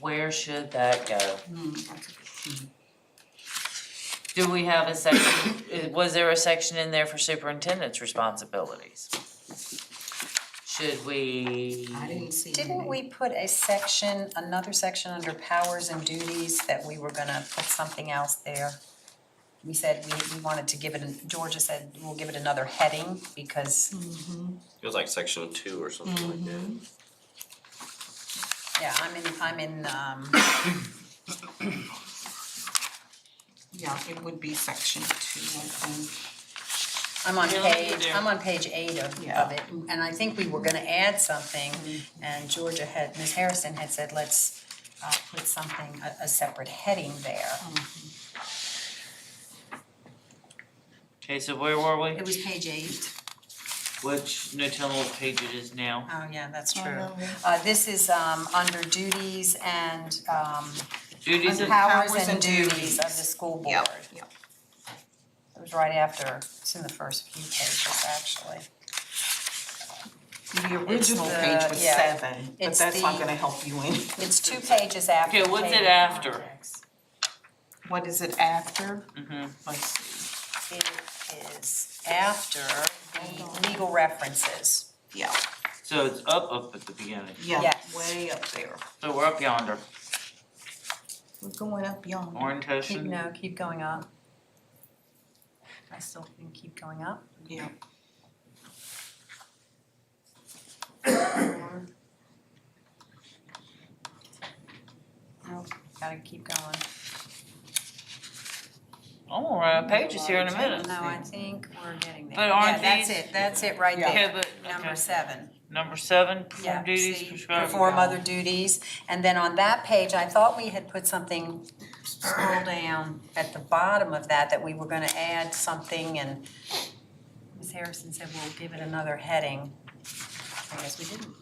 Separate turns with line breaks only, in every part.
where should that go?
Hmm, that's a good-
Do we have a section, uh, was there a section in there for superintendent's responsibilities? Should we?
I didn't see.
Didn't
any.
we put a section, another section under powers and duties that we were gonna put something else there? We said we, we wanted to give it, an- Georgia said we'll give it another heading because,
It was like section two or something like that.
yeah, I'm in, I'm in, um,
Yeah, it would be section two, I think.
I'm on
Yeah, look
page,
there.
I'm on page eight of,
Yeah.
of it, and I think we were gonna add something, and Georgia had, Ms. Harrison had said, let's uh put something, a, a separate heading there.
Okay, so where were we?
It was page eight.
Which, no, tell me what page it is now.
Oh, yeah, that's true. Uh, this is, um, under duties and, um,
Duties
under
and,
powers
powers
and
and
duties
duties.
of the school board.
Yep, yep.
It was right after, it's in the first few pages, actually.
The original
the-
page was
yeah.
seven, but
It's
that's why I'm
the-
gonna help you in.
It's two pages after.
Okay, what's it
table of
after?
contents.
What is it after?
Mhm.
Let's see.
It is after the legal references.
Yeah,
so it's up, up at the beginning.
yeah,
Yes.
way up there.
So we're up yonder,
We're going up yonder.
Keep,
orientation.
no, keep going up. I still think keep going up.
Yeah.
Nope, gotta keep going.
I'm gonna run out of pages here in a minute.
No, I think we're getting there.
But aren't
Yeah, that's
these-
it, that's it right
Yeah.
Yeah,
there,
but,
number
okay.
seven.
Number seven,
Yeah,
perform duties
see,
prescribed.
Perform other duties, and then on that page, I thought we had put something, scroll down at the bottom of that, that we were gonna add something and Ms. Harrison said we'll give it another heading. I guess we didn't.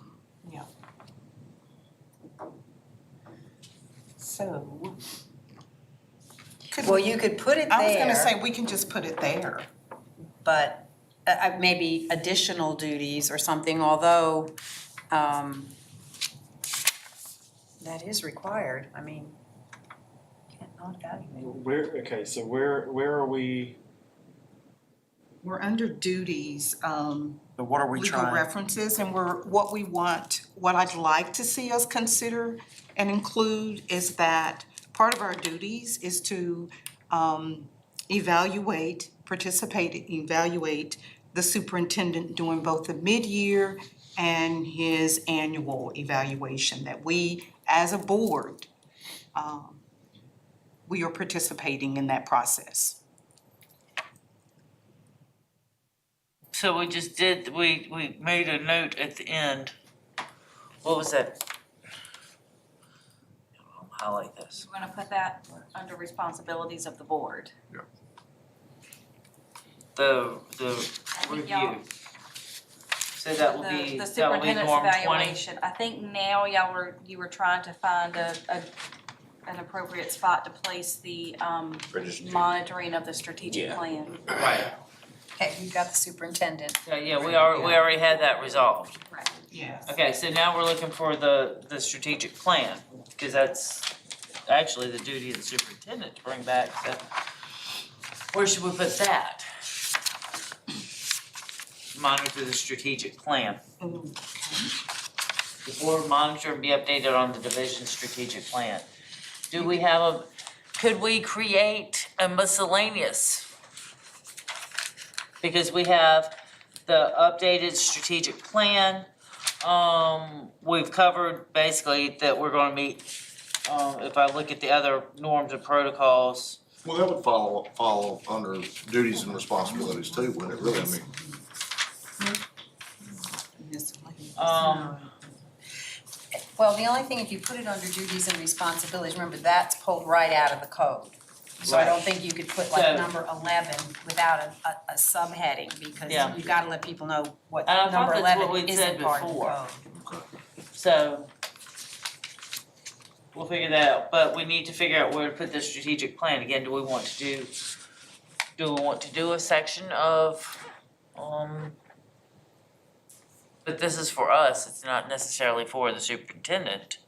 So. Could
Well,
we-
you could put it
I was gonna
there,
say, we can just put it there.
but uh, uh, maybe additional duties or something, although, um, that is required, I mean, can't not evaluate.
Where, okay, so where, where are we,
We're under duties, um,
But what are we
legal
trying,
references and we're, what we want, what I'd like to see us consider and include is that part of our duties is to um, evaluate, participate, evaluate the superintendent doing both the mid-year and his annual evaluation, that we, as a board, um, we are participating in that process.
So we just did, we, we made a note at the end. What was that? I'll Highlight this.
You wanna put that under responsibilities of the board?
The, the
I think y'all-
review. So that will
the-
be, that
The
will be
superintendent's
norm twenty.
evaluation, I think now y'all were, you were trying to find a, a, an appropriate spot to place the, um, monitoring of the strategic
Yeah.
plan.
Right.
Okay, you've got the superintendent.
So, yeah, we are, we already had that resolved.
Right.
Yes.
Okay, so now we're looking for the, the strategic plan, because that's actually the duty of the superintendent to bring back the, where should we put that? Monitor the strategic plan. The board monitor and be updated on the division strategic plan. Do we have a, could we create a miscellaneous? Because we have the updated strategic plan. Um, we've covered basically that we're gonna meet, um, if I look at the other norms and protocols.
Well, that would follow, follow under duties and responsibilities too, wouldn't it, really, I mean,
Um,
Well, the only thing, if you put it under duties and responsibilities, remember, that's pulled right out of the code. So I don't think you could put
So-
like number eleven without a, a, a subheading, because
Yeah.
you gotta let people know what
And I thought
number
that's what
eleven
we'd said
isn't part of the code.
before. so we'll figure that out, but we need to figure out where to put the strategic plan. Again, do we want to do, do we want to do a section of, um, but this is for us, it's not necessarily for the superintendent.